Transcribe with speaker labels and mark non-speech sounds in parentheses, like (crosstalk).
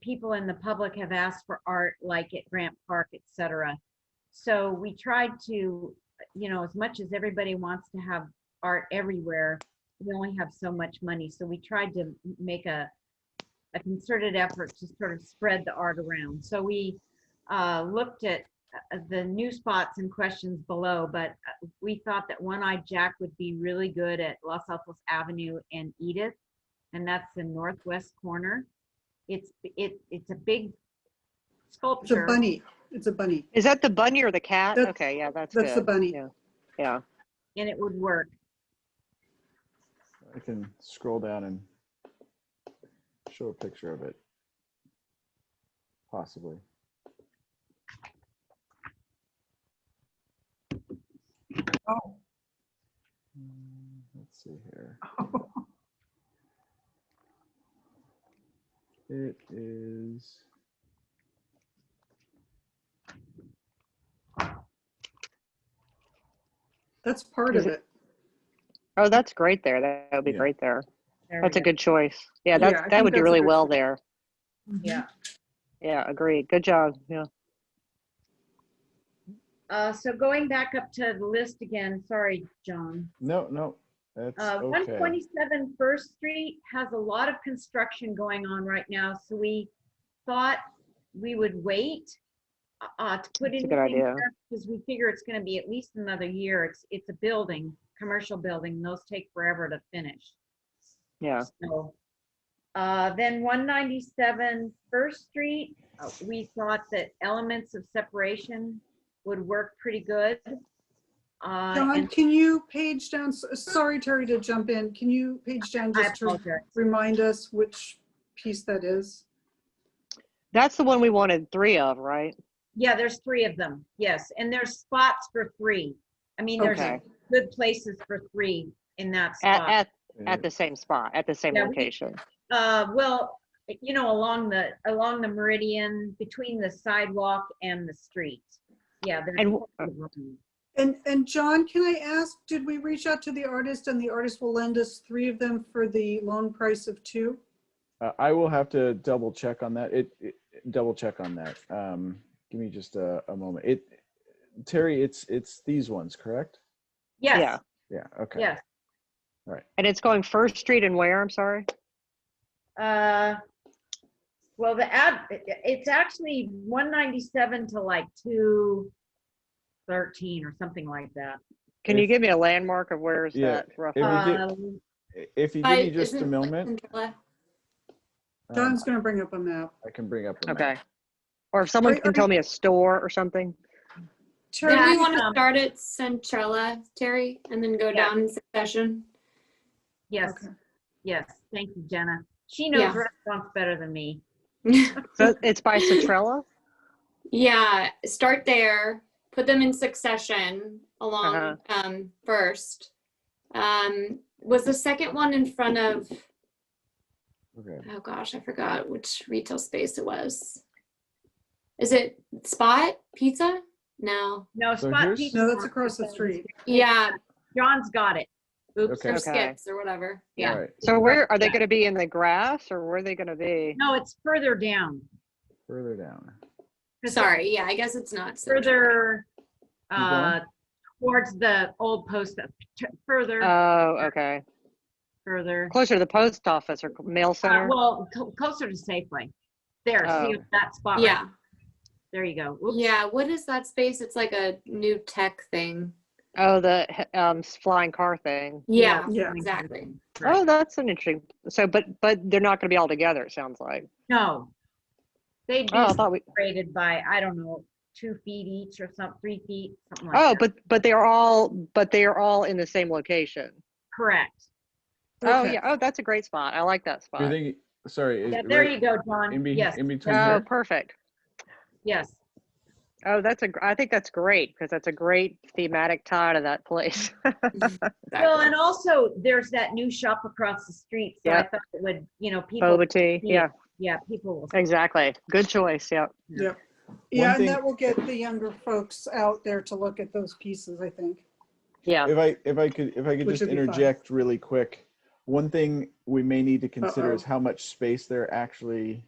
Speaker 1: people in the public have asked for art, like at Grant Park, et cetera. So we tried to, you know, as much as everybody wants to have art everywhere, we only have so much money. So we tried to m- make a, a concerted effort to sort of spread the art around. So we uh, looked at uh, the new spots and questions below, but uh, we thought that One-Eyed Jack would be really good at Los Altos Avenue and Edith, and that's the northwest corner. It's, it, it's a big
Speaker 2: It's a
Speaker 1: sculpture.
Speaker 2: bunny. It's a bunny.
Speaker 3: Is that the bunny or the cat?
Speaker 2: That's-
Speaker 3: Okay, yeah, that's
Speaker 2: That's the
Speaker 3: good.
Speaker 2: bunny.
Speaker 3: Yeah. Yeah.
Speaker 1: And it would work.
Speaker 4: I can scroll down and show a picture of it. Possibly.
Speaker 5: Oh.
Speaker 4: Mm, Let's see here. It is.
Speaker 2: (laughs) That's part of
Speaker 3: Is
Speaker 2: it.
Speaker 3: Oh, that's great there. That that would be
Speaker 4: Yeah.
Speaker 3: great there.
Speaker 1: There we
Speaker 3: That's a
Speaker 1: go.
Speaker 3: good choice. Yeah,
Speaker 2: Yeah,
Speaker 3: that
Speaker 2: I think
Speaker 3: that would do
Speaker 2: that's a
Speaker 3: really
Speaker 2: good
Speaker 3: well
Speaker 2: choice.
Speaker 3: there. Mm-hmm.
Speaker 5: Yeah.
Speaker 3: Yeah, agreed. Good job. Yeah.
Speaker 1: Uh, so going back up to the list again, sorry, John.
Speaker 4: No, no. That's
Speaker 1: Uh,
Speaker 4: okay.
Speaker 1: 127 First Street has a lot of construction going on right now, so we thought we would wait uh, to put in.
Speaker 3: That's a good idea.
Speaker 1: Because we figure it's gonna be at least another year. It's, it's a building, commercial building, those take forever to finish.
Speaker 3: Yeah.
Speaker 1: So, uh, then 197 First Street, uh, we thought that elements of separation would work pretty good. Uh,
Speaker 2: John,
Speaker 1: and
Speaker 2: can you page down, s- sorry Terry to jump in, can you page down
Speaker 1: I
Speaker 2: just to
Speaker 1: apologize.
Speaker 2: remind us which piece that is?
Speaker 3: That's the one we wanted three of, right?
Speaker 1: Yeah, there's three of them, yes, and there's spots for three. I mean, there's
Speaker 3: Okay.
Speaker 1: good places for three in that
Speaker 3: At,
Speaker 1: spot.
Speaker 3: at, at the same spot, at the same
Speaker 1: Yeah, we-
Speaker 3: location.
Speaker 1: Uh, well, you know, along the, along the meridian, between the sidewalk and the street. Yeah. there's
Speaker 3: And
Speaker 1: a
Speaker 3: w-
Speaker 1: couple of them.
Speaker 2: And, and John, can I ask, did we reach out to the artist and the artist will lend us three of them for the loan price of two?
Speaker 4: Uh, I will have to double check on that. It, it double check on that. Um, give me just a, a moment. It, Terry, it's it's these ones, correct?
Speaker 1: Yes,
Speaker 3: Yeah.
Speaker 4: Yeah. Okay.
Speaker 1: yes.
Speaker 3: And it's going First Street and where? I'm sorry.
Speaker 1: Uh, Well, the ad, it- it's actually 197 to like 213 or something like that.
Speaker 3: Can you
Speaker 4: If-
Speaker 3: give me a landmark of where is
Speaker 4: Yeah,
Speaker 3: that roughly?
Speaker 4: If you give-
Speaker 1: Um,
Speaker 4: I- If you give
Speaker 6: I-
Speaker 4: me just a
Speaker 6: isn't like
Speaker 4: moment,
Speaker 6: Centella-
Speaker 3: Uh,
Speaker 4: um,
Speaker 2: John's gonna bring up a map.
Speaker 4: I can bring up. the map.
Speaker 3: Okay. Or if someone
Speaker 2: Are-
Speaker 3: can
Speaker 2: are
Speaker 3: tell me a store or something.
Speaker 2: Terry,
Speaker 6: Did
Speaker 1: Yeah,
Speaker 6: we
Speaker 1: I
Speaker 6: want to
Speaker 1: know.
Speaker 6: start at Centrella, Terry, and then go
Speaker 1: um, Yeah.
Speaker 6: down in session?
Speaker 1: Yes,
Speaker 2: Okay.
Speaker 1: yes, thank you, Jenna. She
Speaker 6: Yeah.
Speaker 1: knows restaurants better than me.
Speaker 3: So it's by Citrella?
Speaker 6: yeah, start there. Put them in succession along
Speaker 3: Uh-huh.
Speaker 6: um, first. Um, was the second one in front of?
Speaker 4: Okay.
Speaker 6: Oh gosh, I forgot which retail space it was. Is it Spot Pizza? No.
Speaker 1: No,
Speaker 4: So
Speaker 1: Spot
Speaker 4: here's-
Speaker 1: Pizza.
Speaker 2: No, that's
Speaker 1: Market
Speaker 2: across the
Speaker 1: sells-
Speaker 2: street.
Speaker 6: Yeah,
Speaker 1: John's got it. Oops.
Speaker 4: Okay.
Speaker 6: or
Speaker 3: Okay.
Speaker 6: Skips or whatever. Yeah.
Speaker 4: All right.
Speaker 3: So where, are they
Speaker 1: Yeah.
Speaker 3: going to be in the grass or where are they going to be?
Speaker 1: No, it's further down.
Speaker 4: Further down.
Speaker 1: It's
Speaker 6: Sorry. Yeah, I guess it's not. Centrella.
Speaker 1: Further,
Speaker 4: going?
Speaker 1: uh, towards the old post, uh, further,
Speaker 6: Uh,
Speaker 3: Oh, okay.
Speaker 1: further.
Speaker 3: Closer to the post office or mail
Speaker 1: Uh,
Speaker 3: center?
Speaker 1: Well, co- closer to Safeway. There, see
Speaker 3: Oh.
Speaker 1: that spot? right
Speaker 6: Yeah.
Speaker 1: There you go. Oops.
Speaker 6: Yeah. What is that space? It's like a new tech thing.
Speaker 3: Oh, the he- um, s- flying car thing.
Speaker 6: Yeah.
Speaker 2: Yeah.
Speaker 6: Exactly.
Speaker 3: Oh, that's an interesting, so, but, but they're not going to be all together, it sounds like.
Speaker 1: No. They'd
Speaker 3: Oh, I
Speaker 1: be
Speaker 3: thought we,
Speaker 1: separated by, I don't know, two feet each or some, three feet, something like that.
Speaker 3: oh, but, but they are all, but they are all in the same location.
Speaker 1: Correct.
Speaker 3: Oh,
Speaker 2: Okay.
Speaker 3: yeah. Oh, that's a great spot. I like that
Speaker 4: You're
Speaker 3: spot.
Speaker 4: thinking, sorry. is-
Speaker 1: Yeah, there
Speaker 4: right
Speaker 1: you go, John.
Speaker 4: In, be-
Speaker 1: Yes,
Speaker 4: in between
Speaker 3: Oh,
Speaker 2: Uh,
Speaker 4: here?
Speaker 3: perfect.
Speaker 1: yes.
Speaker 3: Oh, that's a, gr- I think that's great because that's a great thematic tie to that place.
Speaker 1: Well, and also there's that new shop across the street. So I
Speaker 3: Yep.
Speaker 1: thought it would, you know, people,
Speaker 3: Boba tea.
Speaker 1: see it.
Speaker 3: Yeah,
Speaker 1: yeah, people will.
Speaker 3: exactly. Good choice. Yeah.
Speaker 2: Yeah, and
Speaker 4: thing-
Speaker 2: that will get the younger folks out there to look at those pieces, I think.
Speaker 3: Yeah.
Speaker 4: If I if I could if I could
Speaker 2: Which
Speaker 4: just
Speaker 2: would be fine.
Speaker 4: interject really quick, one thing we may need to consider is
Speaker 2: Uh-oh.
Speaker 4: how much space they're actually